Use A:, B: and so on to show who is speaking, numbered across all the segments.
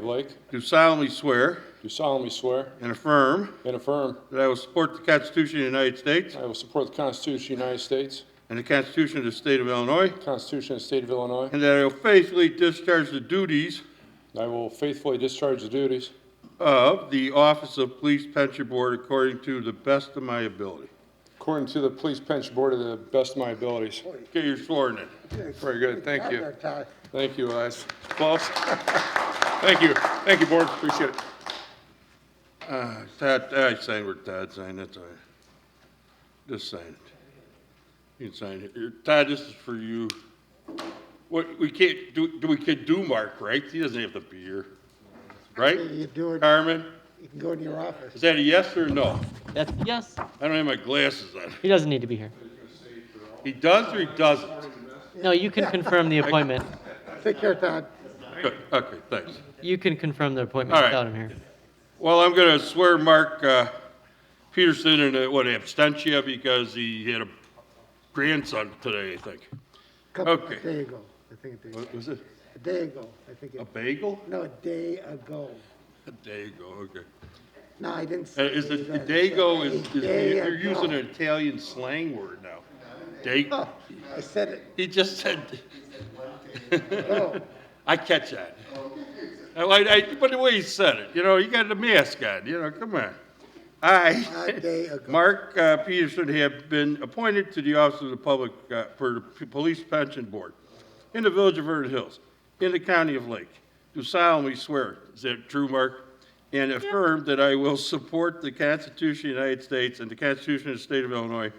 A: Blake,
B: do solemnly swear
A: do solemnly swear
B: and affirm
A: and affirm
B: that I will support the Constitution of the United States
A: I will support the Constitution of the United States,
B: and the Constitution of the State of Illinois,
A: the Constitution of the State of Illinois,
B: and that I will faithfully discharge the duties
A: and I will faithfully discharge the duties
B: of the Office of Police Pension Board according to the best of my ability.
A: according to the Police Pension Board to the best of my abilities.
B: Okay, you're sworn in.
A: Very good, thank you.
C: Ty.
A: Thank you, guys. Close. Thank you, thank you, Board, appreciate it.
B: Uh, Todd, I signed where Todd signed, that's all right. Just sign it. You can sign it. Here, Todd, this is for you. What, we can't, do, do we can do Mark, right? He doesn't have to be here, right?
C: You do it,
B: Carmen,
C: you can go in your office.
B: is that a yes or a no?
D: That's yes.
B: I don't have my glasses on.
D: He doesn't need to be here.
B: He does or he doesn't?
D: No, you can confirm the appointment.
C: Take care, Todd.
B: Good, okay, thanks.
D: You can confirm the appointment
B: All right.
D: without him here.
B: Well, I'm going to swear Mark uh, Peterson in, a- what, abstention because he had a grandson today, I think.
C: Couple-
B: Okay.
C: A day ago, I think, a day,
B: What was it?
C: a day ago, I think,
B: A
C: it-
B: bagel?
C: no, a day ago.
B: There you go, okay.
C: No, I didn't.
B: Uh,
C: say
B: Is
C: it, I
B: it,
C: said
B: dago is,
C: a
B: is-
C: day
B: they're
C: ago.
B: using an Italian slang word now. Dago,
C: No, I said it,
B: he just said,
C: no,
B: I catch that. I, I, but the way he said it, you know, he got the mask on, you know, come on.
C: a
B: I,
C: day ago.
B: Mark uh, Peterson have been appointed to the Office of the Public, uh, for the P- Police Pension Board in the Village of Vernon Hills, in the County of Lake. Do solemnly swear, is that true, Mark? And affirm that I will support the Constitution of the United States and the Constitution of the State of Illinois,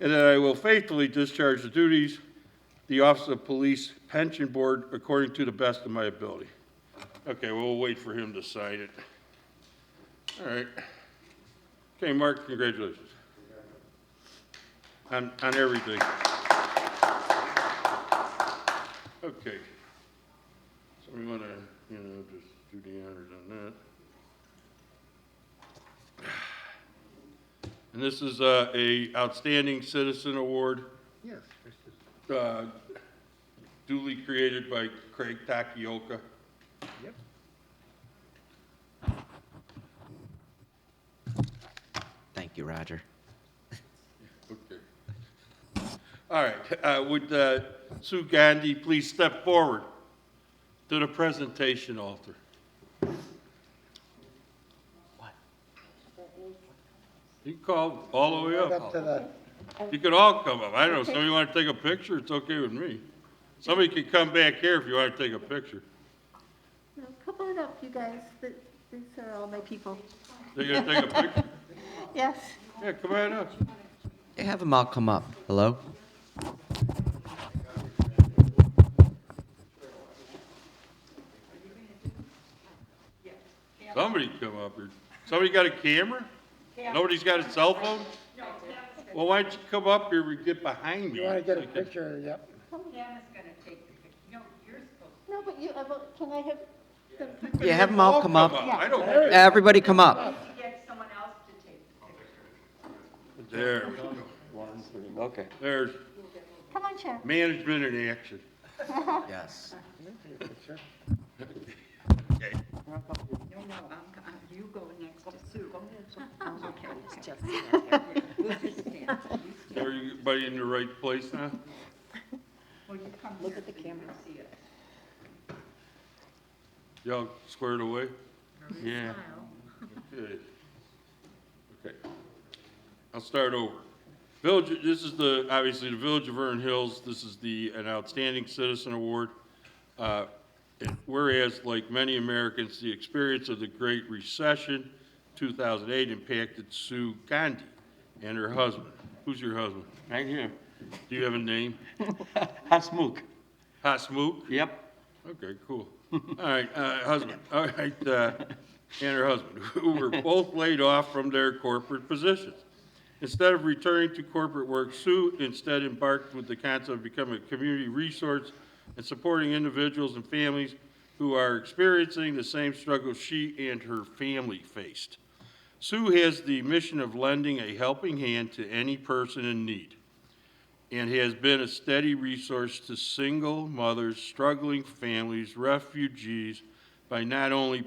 B: and that I will faithfully discharge the duties the Office of Police Pension Board according to the best of my ability. Okay, we'll wait for him to sign it. All right. Okay, Mark, congratulations. On, on everything. Okay. So we want to, you know, just do the honors on that. And this is uh, a Outstanding Citizen Award
C: Yes, this is-
B: uh, duly created by Craig Takioka.
C: yep.
E: Thank you, Roger.
B: Okay. All right, uh, would uh, Sue Gandhi please step forward to the presentation altar? You can call all the way
C: Up to
B: up.
C: the,
B: You could all come up. I don't know, somebody want to take a picture, it's okay with me. Somebody can come back here if you want to take a picture.
F: No, Come on up, you guys. Th- These are all my people.
B: They gonna take a picture?
F: Yes.
B: Yeah, come on up.
E: Yeah, Have them all come up. Hello?
B: Somebody come up here. Somebody got a camera? Nobody's got a cell phone? Well, why don't you come up here, we get behind you.
C: you want to get a
B: We can-
C: picture, yep.
G: Pam is gonna take the picture. No, you're supposed
F: No, but you, uh, well, can I have them come?
E: Yeah, have them all come up.
B: I don't care.
E: Everybody come up.
G: to get someone else to take the picture.
B: There, we go.
E: Okay.
B: there's
F: Come on, Chair.
B: management in action.
E: Yes.
G: No, no, I'm, I'm, you go next to Sue. Go Okay. We'll just stand. You stand.
B: Everybody in the right place now?
G: Will you come Look at the camera. See it.
B: Y'all squared away? Yeah. Good. Okay. I'll start over. Village, this is the, obviously, the Village of Vernon Hills, this is the, an Outstanding Citizen Award. Uh, and Whereas, like many Americans, the experience of the Great Recession, 2008, impacted Sue Gandhi and her husband. Who's your husband?
H: Right here.
B: Do you have a name?
H: Hasmukh.
B: Hasmukh?
H: Yep.
B: Okay, cool. All right, uh, husband, all right, uh, and her husband, who were both laid off from their corporate positions. Instead of returning to corporate work, Sue instead embarked with the concept of becoming a community resource and supporting individuals and families who are experiencing the same struggles she and her family faced. Sue has the mission of lending a helping hand to any person in need and has been a steady resource to single mothers, struggling families, refugees by not only